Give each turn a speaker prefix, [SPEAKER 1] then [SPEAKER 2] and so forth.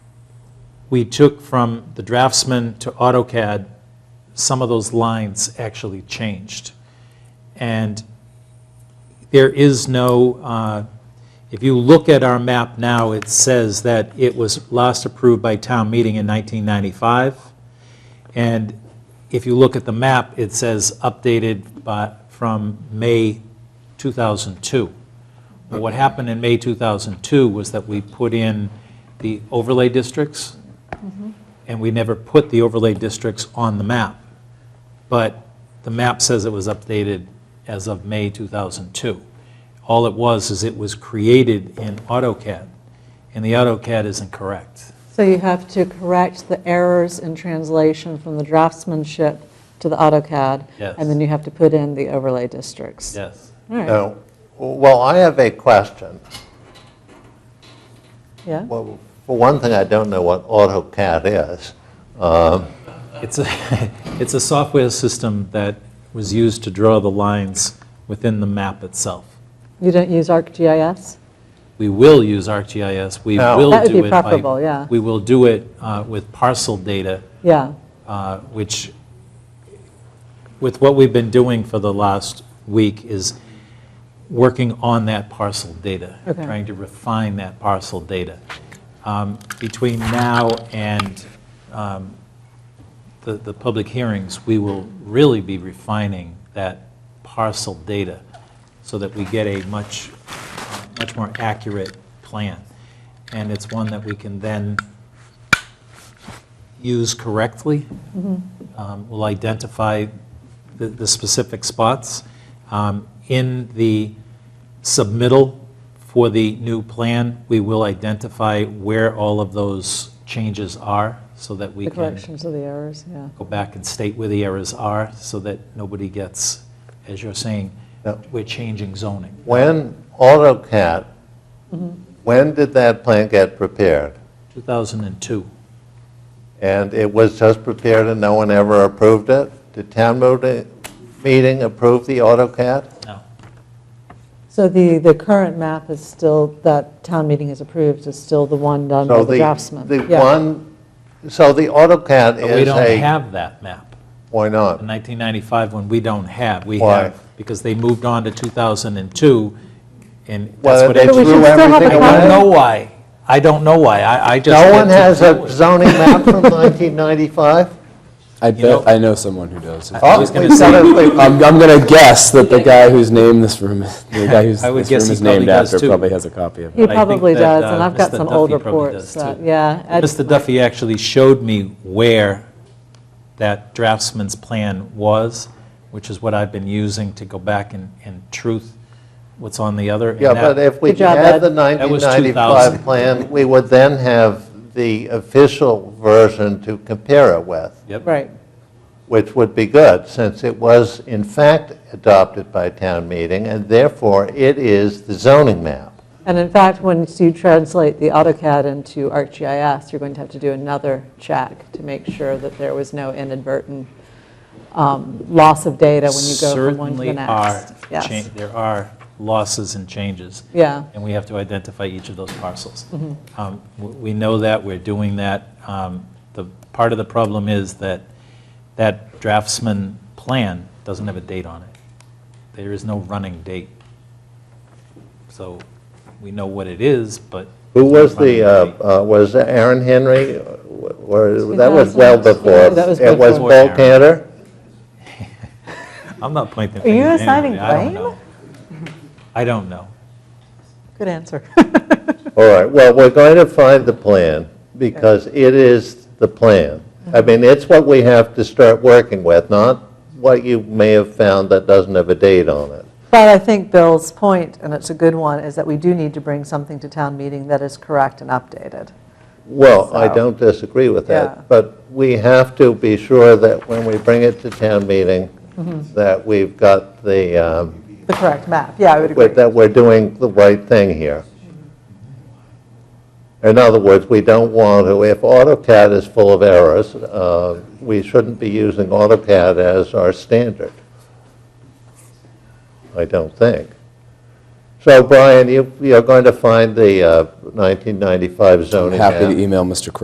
[SPEAKER 1] we took from the draftsman to AutoCAD, some of those lines actually changed. And there is no, uh, if you look at our map now, it says that it was last approved by town meeting in 1995. And if you look at the map, it says updated by, from May 2002. Well, What happened in May 2002 was that we put in the overlay districts, and we never put the overlay districts on the map. But the map says it was updated as of May 2002. All it was is it was created in AutoCAD, and the AutoCAD isn't correct.
[SPEAKER 2] So you have to correct the errors in translation from the draftsmanship to the AutoCAD.
[SPEAKER 1] Yes.
[SPEAKER 2] And then you have to put in the overlay districts.
[SPEAKER 1] Yes.
[SPEAKER 2] All right,
[SPEAKER 3] No. Well, I have a question.
[SPEAKER 2] yeah.
[SPEAKER 3] Well, for one thing, I don't know what AutoCAD is.
[SPEAKER 1] It's a, it's a software system that was used to draw the lines within the map itself.
[SPEAKER 2] You don't use ArcGIS?
[SPEAKER 1] We will use ArcGIS, we
[SPEAKER 3] No.
[SPEAKER 1] will do it
[SPEAKER 2] That would be
[SPEAKER 1] by-
[SPEAKER 2] preferable, yeah.
[SPEAKER 1] We will do it uh, with parcel data,
[SPEAKER 2] Yeah,
[SPEAKER 1] uh, which, with what we've been doing for the last week, is working on that parcel data,
[SPEAKER 2] Okay.
[SPEAKER 1] trying to refine that parcel data. Um, Between now and um, the, the public hearings, we will really be refining that parcel data so that we get a much, much more accurate plan. And it's one that we can then use correctly. Um, We'll identify the, the specific spots. Um, In the submittal for the new plan, we will identify where all of those changes are so that we
[SPEAKER 2] the
[SPEAKER 1] can
[SPEAKER 2] corrections of the errors, yeah.
[SPEAKER 1] go back and state where the errors are so that nobody gets, as you're saying,
[SPEAKER 3] Yep.
[SPEAKER 1] we're changing zoning.
[SPEAKER 3] When AutoCAD, when did that plan get prepared?
[SPEAKER 1] 2002.
[SPEAKER 3] And it was just prepared and no one ever approved it? Did town moti- meeting approve the AutoCAD?
[SPEAKER 1] No.
[SPEAKER 2] So the, the current map is still, that town meeting has approved, is still the one done by
[SPEAKER 3] So
[SPEAKER 2] the draftsman?
[SPEAKER 3] The
[SPEAKER 2] Yeah.
[SPEAKER 3] one, so the AutoCAD
[SPEAKER 1] But we
[SPEAKER 3] is
[SPEAKER 1] don't
[SPEAKER 3] a,
[SPEAKER 1] have that map.
[SPEAKER 3] why
[SPEAKER 1] In
[SPEAKER 3] not?
[SPEAKER 1] 1995, when we don't have, we
[SPEAKER 3] Why?
[SPEAKER 1] have, because they moved on to 2002, and that's
[SPEAKER 3] Well,
[SPEAKER 1] what
[SPEAKER 3] they
[SPEAKER 1] I
[SPEAKER 2] But we
[SPEAKER 3] threw
[SPEAKER 2] should still have
[SPEAKER 3] everything
[SPEAKER 2] a
[SPEAKER 1] don't
[SPEAKER 2] copy.
[SPEAKER 3] away?
[SPEAKER 1] know why. I don't know why. I, I just.
[SPEAKER 3] No
[SPEAKER 1] get
[SPEAKER 3] one
[SPEAKER 1] to
[SPEAKER 3] has
[SPEAKER 1] do
[SPEAKER 3] a
[SPEAKER 1] it.
[SPEAKER 3] zoning map from 1995?
[SPEAKER 4] I
[SPEAKER 1] know-
[SPEAKER 4] bet, I know someone who does.
[SPEAKER 3] Oh,
[SPEAKER 1] was gonna
[SPEAKER 3] we've
[SPEAKER 1] say-
[SPEAKER 3] got a-
[SPEAKER 4] I'm, I'm gonna guess that the guy whose name this room, is- the guy whose
[SPEAKER 1] I would
[SPEAKER 4] this
[SPEAKER 1] guess
[SPEAKER 4] room
[SPEAKER 1] he
[SPEAKER 4] is named
[SPEAKER 1] probably does,
[SPEAKER 4] after
[SPEAKER 1] too.
[SPEAKER 4] probably has a copy of it.
[SPEAKER 2] He
[SPEAKER 1] But I think
[SPEAKER 2] probably
[SPEAKER 1] that,
[SPEAKER 2] does,
[SPEAKER 1] uh,
[SPEAKER 2] and I've got
[SPEAKER 1] Mr.
[SPEAKER 2] some old
[SPEAKER 1] Duffy probably
[SPEAKER 2] reports,
[SPEAKER 1] does,
[SPEAKER 2] that-
[SPEAKER 1] too.
[SPEAKER 2] yeah. Ed-
[SPEAKER 1] Mr. Duffy actually showed me where that draftsman's plan was, which is what I've been using to go back and, and truth what's on the other. and
[SPEAKER 3] Yeah,
[SPEAKER 1] that-
[SPEAKER 3] but if we
[SPEAKER 2] Good job,
[SPEAKER 3] had the
[SPEAKER 2] Ed.
[SPEAKER 1] That was 2000.
[SPEAKER 3] 1995 plan, we would then have the official version to compare it with,
[SPEAKER 1] Yep.
[SPEAKER 2] Right,
[SPEAKER 3] which would be good, since it was in fact adopted by town meeting, and therefore it is the zoning map.
[SPEAKER 2] and in fact, once you translate the AutoCAD into ArcGIS, you're going to have to do another check to make sure that there was no inadvertent um, loss of data when you go from one to the
[SPEAKER 1] Certainly are,
[SPEAKER 2] next.
[SPEAKER 1] cha-
[SPEAKER 2] Yes,
[SPEAKER 1] there are losses and changes.
[SPEAKER 2] yeah,
[SPEAKER 1] and we have to identify each of those parcels.
[SPEAKER 2] Mm-hmm.
[SPEAKER 1] Um, w- We know that, we're doing that. Um, The, part of the problem is that that draftsman plan doesn't have a date on it. There is no running date. So we know what it is, but.
[SPEAKER 3] Who
[SPEAKER 1] there's
[SPEAKER 3] was the,
[SPEAKER 1] no running date.
[SPEAKER 3] uh, uh, was Aaron Henry, uh, or, that was well
[SPEAKER 2] 2000.
[SPEAKER 3] before.
[SPEAKER 2] That was
[SPEAKER 3] It was
[SPEAKER 1] before
[SPEAKER 3] Bill
[SPEAKER 1] Aaron.
[SPEAKER 3] Cantor?
[SPEAKER 1] I'm not pointing
[SPEAKER 2] Are you
[SPEAKER 1] fingers at
[SPEAKER 2] assigning
[SPEAKER 1] anybody. I don't
[SPEAKER 2] blame?
[SPEAKER 1] know. I don't know.
[SPEAKER 2] good answer.
[SPEAKER 3] All right, well, we're going to find the plan, because it is the plan.
[SPEAKER 2] Mm-hmm.
[SPEAKER 3] I mean, it's what we have to start working with, not what you may have found that doesn't have a date on it.
[SPEAKER 2] But I think Bill's point, and it's a good one, is that we do need to bring something to town meeting that is correct and updated.
[SPEAKER 3] Well, I
[SPEAKER 2] So-
[SPEAKER 3] don't disagree with
[SPEAKER 2] Yeah.
[SPEAKER 3] that, but we have to be sure that when we bring it to town meeting,
[SPEAKER 2] Mm-hmm.
[SPEAKER 3] that we've got the, um,
[SPEAKER 2] The correct map, yeah, I would agree.
[SPEAKER 3] with- that we're doing the right thing here. In other words, we don't want to, if AutoCAD is full of errors, uh, we shouldn't be using AutoCAD as our standard. I don't think. So Brian, you, you're going to find the uh, 1995 zoning map.
[SPEAKER 4] Happy to email Mr. Crowe